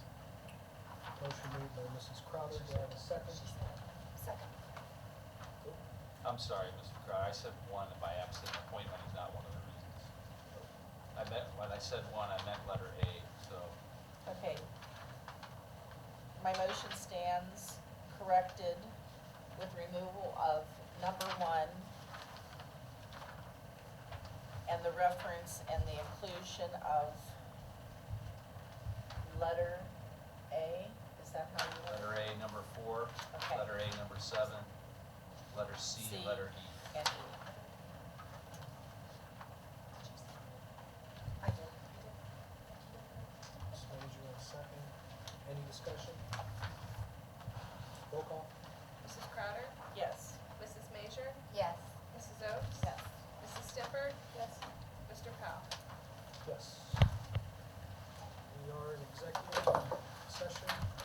Motion made by Mrs. Crowder, do I have a second? Second. I'm sorry, Mr. Crowder, I said one by absent appointment is not one of the reasons. I meant, when I said one, I meant letter A, so Okay. My motion stands corrected with removal of number one and the reference and the inclusion of letter A, is that how you want letter A, number four, Okay. letter A, number seven, letter C, C. letter it? E. And E.